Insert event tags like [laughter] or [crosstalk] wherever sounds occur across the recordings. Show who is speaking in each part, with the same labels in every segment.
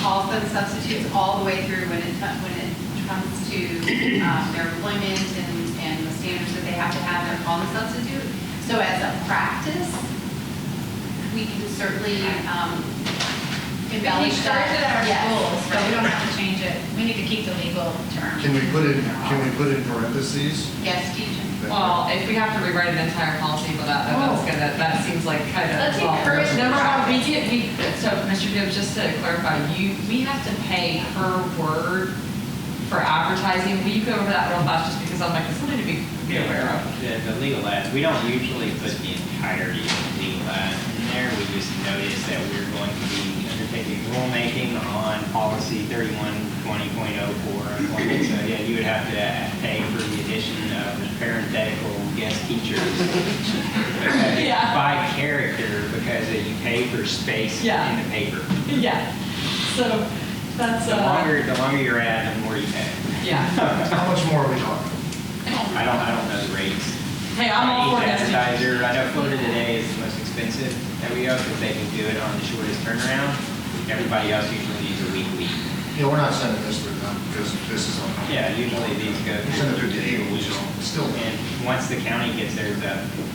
Speaker 1: code substitutes all the way through when it, when it comes to um, their employment and, and the standards that they have to have, they're called a substitute. So as a practice, we can certainly um,
Speaker 2: We
Speaker 1: embellish that.
Speaker 2: started our
Speaker 1: Yes.
Speaker 2: rules, but we don't have to change it. We need to keep the legal term.
Speaker 3: Can we put in, can we put in parentheses?
Speaker 1: Yes, teacher.
Speaker 4: Well, if we have to rewrite an entire policy for that, then that's gonna, that seems like kind of.
Speaker 2: Let's encourage the
Speaker 4: Number one, we
Speaker 2: process.
Speaker 4: get, we, so Mr. Gibbs, just to clarify, you, we have to pay per word for advertising. Will you go over that real fast, just because I'm like, it's something to be be aware
Speaker 5: [laughs]
Speaker 4: of?
Speaker 5: The, the legal ads, we don't usually put the entirety of the legal ad in there. We just notice that we're going to be undertaking rulemaking on policy thirty-one twenty point oh four employment. So, yeah, you would have to pay for the addition of the parenthetical guest teachers.
Speaker 4: Yeah.
Speaker 5: By character, because you pay for space
Speaker 4: Yeah.
Speaker 5: in the paper.
Speaker 4: Yeah, so that's,
Speaker 5: The
Speaker 4: uh,
Speaker 5: longer, the longer your ad, the more you pay.
Speaker 4: yeah.
Speaker 3: How much more are we talking?
Speaker 5: I don't, I don't know the rates.
Speaker 4: Hey, I'm all for
Speaker 5: Each
Speaker 4: this.
Speaker 5: advertiser, I know Florida today is the most expensive that we have, because they can do it on the shortest turnaround. Everybody else usually needs a week, week.
Speaker 3: Yeah, we're not sending this through them, because this is on.
Speaker 5: Yeah, usually these go.
Speaker 3: We send it through the Eagle, we just, it's still,
Speaker 5: And once the county gets theirs up, it looks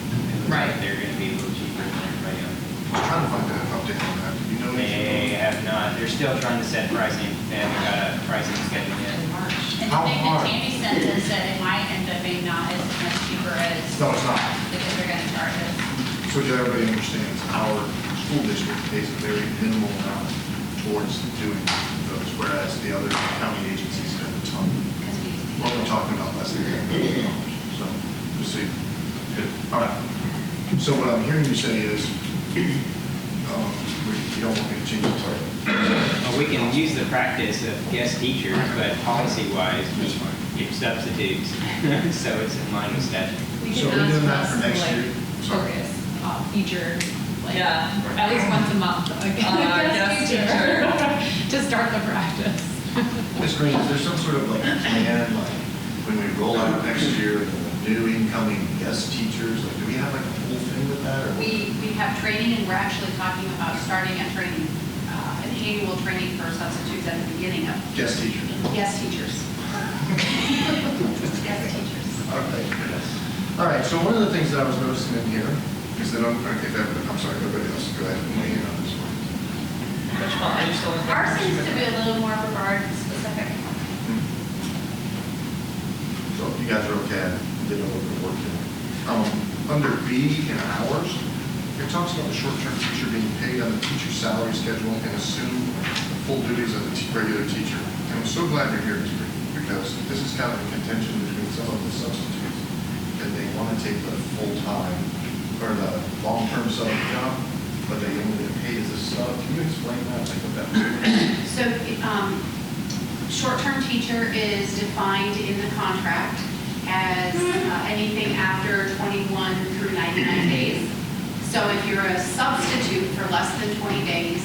Speaker 4: Right.
Speaker 5: like they're gonna be a little cheaper than everybody else.
Speaker 3: just trying to find an update on that, you know?
Speaker 5: They have not, they're still trying to set pricing, they haven't got a pricing schedule yet.
Speaker 2: And the
Speaker 3: How
Speaker 2: thing that
Speaker 3: hard?
Speaker 2: Tammy said is that it might end up being not as much cheaper as,
Speaker 3: No, it's not.
Speaker 2: because they're gonna charge us.
Speaker 3: So that everybody understands, our school district pays a very minimal amount towards doing those, whereas the other county agencies spend a ton.
Speaker 2: Because we use
Speaker 3: What we're talking about less than ten million dollars, so, we'll see. Good. All right. So what I'm hearing you say is, [clears throat] um, we- you don't want me to change the title.
Speaker 5: Well, we can use the practice of guest teachers, but policy-wise, we give substitutes, [laughs] so it's in line with statute.
Speaker 6: We
Speaker 3: So
Speaker 6: can
Speaker 3: we're doing that
Speaker 6: ask
Speaker 3: for
Speaker 6: us to
Speaker 3: next
Speaker 6: like
Speaker 3: year? Sorry.
Speaker 6: focus
Speaker 4: Uh,
Speaker 6: on feature, like,
Speaker 4: Yeah.
Speaker 6: at least once a
Speaker 2: [laughs]
Speaker 6: month. like,
Speaker 4: Uh,
Speaker 6: guest
Speaker 4: guest
Speaker 6: teacher. [laughs] To start the practice.
Speaker 3: Ms. Green, is there some sort of like plan, like when we roll out next year, the new incoming guest teachers, like do we have like a whole thing with that or?
Speaker 1: We, we have training, and we're actually talking about starting a training, uh, an annual training for substitutes at the beginning of,
Speaker 3: Guest teachers.
Speaker 1: yes, teachers. [laughs] Yes, teachers.
Speaker 3: All right. All right, so one of the things that I was noticing in here is that, I'm, if everybody- I'm sorry, everybody else, go ahead and weigh in on this one.
Speaker 4: Which one? Are you still in?
Speaker 2: Ours seems to be a little more regard specific.
Speaker 3: So if you guys are okay, I did a little bit of work here. Um, under B in hours, it talks about the short-term teacher being paid on the teacher's salary schedule and assume the full duties of the te- regular teacher. And I'm so glad you're here, teacher, because this is kind of a contention between some of the substitutes, that they want to take the full-time or the long-term sub job, but they only get paid as a sub. Can you explain that, like what that means?
Speaker 1: So, um, short-term teacher is defined in the contract as uh, anything after 21 through 99 days. So if you're a substitute for less than 20 days,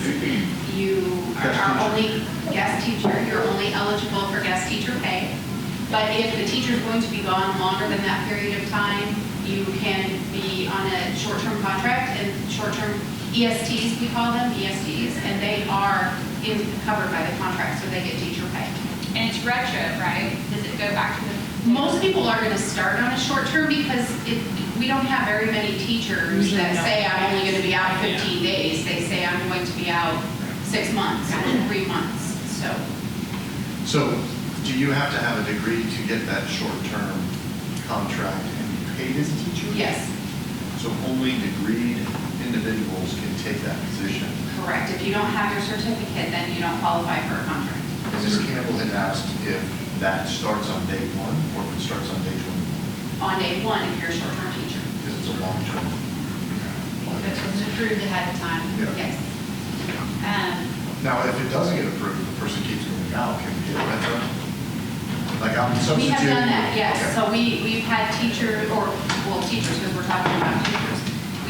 Speaker 1: you are-
Speaker 3: Guest
Speaker 1: are
Speaker 3: teacher.
Speaker 1: only guest teacher, you're only eligible for guest teacher pay. But if the teacher's going to be gone longer than that period of time, you can be on a short-term contract and short-term ESTs, we call them, ESTs, and they are in- covered by the contract, so they get teacher pay.
Speaker 2: And it's retro, right? Does it go back to the?
Speaker 1: Most people are going to start on a short-term because it, we don't have very many teachers that say, I'm only going to be out 15 days. They say, I'm going to be out six months or three months, so.
Speaker 3: So do you have to have a degree to get that short-term contract and be paid as a teacher?
Speaker 1: Yes,
Speaker 3: So only degreed individuals can take that position.
Speaker 1: correct. If you don't have your certificate, then you don't qualify for a contract.
Speaker 3: Mrs. Campbell had asked if that starts on day one or if it starts on day 20,
Speaker 1: On day one, if you're a short-term teacher.
Speaker 3: because it's a long-term.
Speaker 2: If it was approved ahead of time.
Speaker 3: Yeah.
Speaker 1: Yes.
Speaker 2: Um,
Speaker 3: Now, if it doesn't get approved, the person keeps going out, can we do that? Like I'm
Speaker 1: We
Speaker 3: substituting.
Speaker 1: have done that, yes.
Speaker 3: Okay.
Speaker 1: So we, we've had teacher, or, well, teachers, because we're talking about teachers.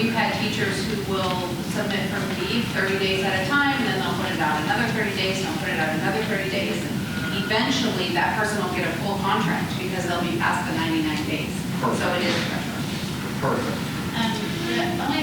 Speaker 1: We've had teachers who will submit for leave 30 days at a time, then they'll put it out another 30 days, they'll put it out another 30 days. and Eventually, that person will get a full contract because they'll be past the 99 days. So it is.
Speaker 3: Perfect.
Speaker 2: um, the only